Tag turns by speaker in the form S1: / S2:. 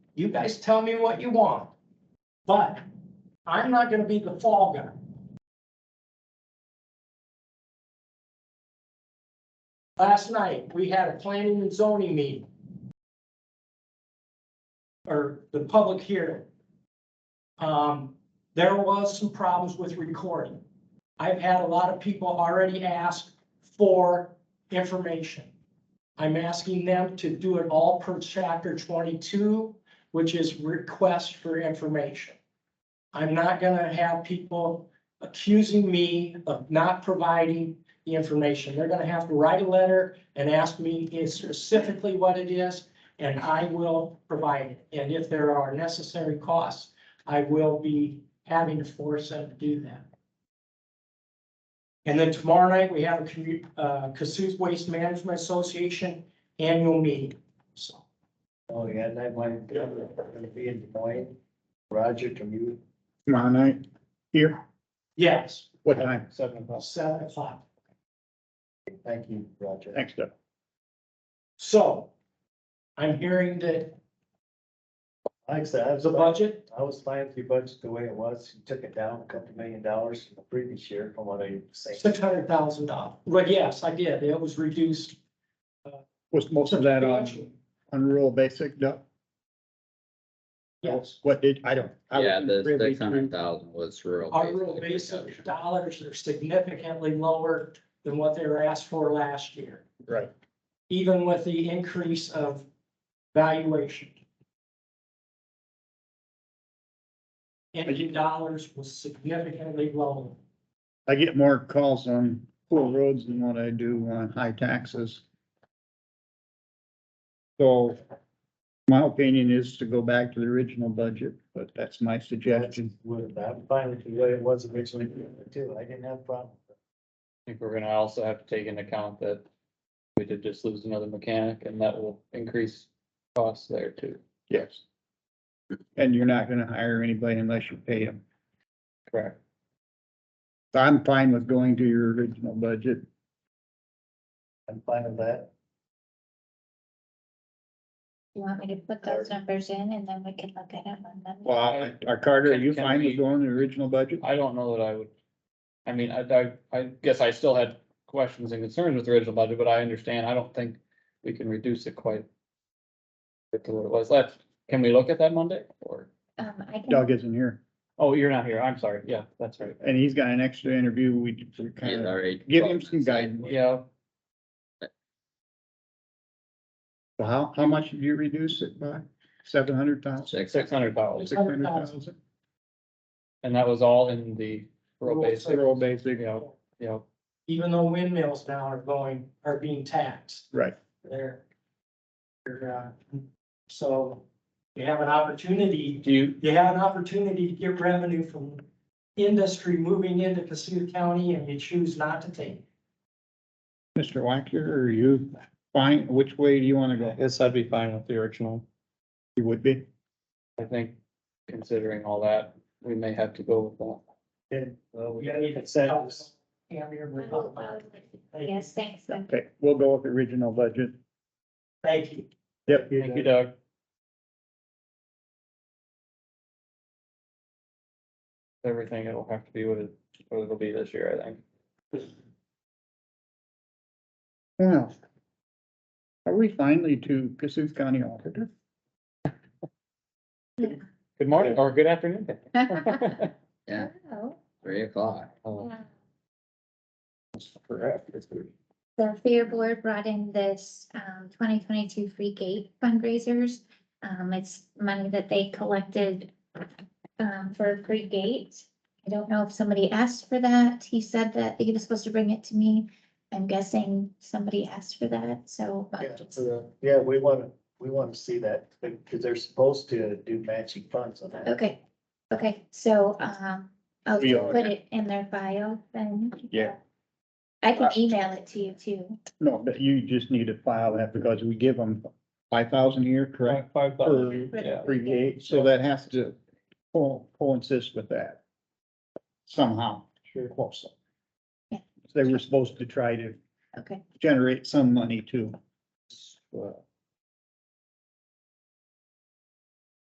S1: You guys tell me what you want. But I'm not gonna be the fall guy. Last night, we had a planning and zoning meeting. Or the public hearing. Um, there was some problems with recording. I've had a lot of people already ask for information. I'm asking them to do it all per chapter twenty-two, which is request for information. I'm not gonna have people accusing me of not providing the information. They're gonna have to write a letter and ask me specifically what it is, and I will provide it. And if there are necessary costs, I will be having to force them to do that. And then tomorrow night, we have a commu- uh, Cassuth Waste Management Association annual meeting, so.
S2: Oh, yeah, and I might be able to be in Des Moines. Roger, can you?
S3: Tomorrow night, here,
S1: Yes,
S3: what time?
S2: Seven o'clock.
S1: seven o'clock.
S2: Thank you, Roger.
S3: Thanks, Doug.
S1: So I'm hearing that
S2: Like I said, I was,
S1: the budget,
S2: I was fine with your budget the way it was. You took it down a couple million dollars from the previous year from what I said.
S1: six hundred thousand dollars. Well, yes, I did. It was reduced.
S3: Was most of that um, on,
S1: substantially.
S3: on rural basic, Doug?
S1: Yes,
S3: What did, I don't. I
S4: Yeah, the
S3: wasn't privy
S4: six hundred
S3: to-
S4: thousand was rural.
S1: our real
S4: basic
S1: basic
S4: reduction.
S1: dollars are significantly lower than what they were asked for last year,
S3: Right,
S1: even with the increase of valuation. Energy dollars was significantly lower.
S3: I get more calls on poor roads than what I do on high taxes. So my opinion is to go back to the original budget, but that's my suggestion.
S2: Would- I'm fine with the way it was originally too. I didn't have a problem.
S5: I think we're gonna also have to take into account that we did just lose another mechanic and that will increase costs there too.
S3: Yes. And you're not gonna hire anybody unless you pay them.
S5: Correct.
S3: So I'm fine with going to your original budget.
S2: I'm fine with that.
S6: You want me to put those numbers in and then we can look at them on Monday?
S3: Well, are Carter, are you
S5: Can- can
S3: fine
S5: we-
S3: with going to the original budget?
S5: I don't know that I would, I mean, I, I, I guess I still had questions and concerns with the original budget, but I understand, I don't think we can reduce it quite to what it was left. Can we look at that Monday or,
S6: Um, I can,
S3: Doug isn't here,
S5: oh, you're not here, I'm sorry, yeah, that's right.
S3: and he's got an extra interview, we
S4: He's
S3: kind of,
S4: already
S3: give him
S4: twelve
S3: some
S4: minutes in.
S3: guidance.
S5: Yeah,
S3: how, how much did you reduce it by? Seven hundred thousand,
S4: Six,
S5: six hundred dollars,
S3: six hundred thousand?
S5: and that was all in the rural basic,
S3: Rural basic,
S5: yeah, yeah.
S1: even though windmills now are going, are being taxed
S3: right,
S1: there. They're, uh, So you have an opportunity,
S5: Do you,
S1: you have an opportunity to get revenue from industry moving into Cassuth County and you choose not to take. it.
S3: Mr. Wacker, are you fine, which way do you wanna go?
S5: Yes, I'd be fine with the original.
S3: You would be,
S5: I think considering all that, we may have to go with that.
S2: Yeah, well, we
S1: You
S2: got
S1: need
S2: to
S1: to
S2: set.
S1: help us. Cam, you're
S6: I
S1: with
S6: will, I
S1: us.
S6: will. yes, thanks. Doug.
S3: okay, we'll go with the original budget.
S1: Thank you.
S5: Thank you, Doug. Everything, it'll have to be what it, what it'll be this year, I think.
S3: Well. Are we finally to Cassuth County Auditor?
S5: Good morning, or good afternoon.
S4: Yeah,
S6: Oh,
S4: three o'clock.
S5: Oh,
S6: wow.
S2: For after three.
S6: The fair board brought in this um twenty twenty-two free gate fundraisers. Um, it's money that they collected um for a free gate. I don't know if somebody asked for that. He said that he was supposed to bring it to me. I'm guessing somebody asked for that, so. uh,
S2: Yeah, for the- Yeah, we want to, we want to see that because they're supposed to do matching funds on that.
S6: Okay, okay, so, um, I'll
S3: We are-
S6: put it in their file then.
S3: Yeah. Uh,
S6: I can email it to you too.
S3: No, but you just need to file that because we give them five thousand a year, correct?
S5: Five
S3: For
S5: bucks, yeah.
S3: free gate, so that has to co- coinsist with that somehow. Sure. Close.
S6: Yeah.
S3: They were supposed to try to
S6: Okay,
S3: generate some money too.
S5: Well,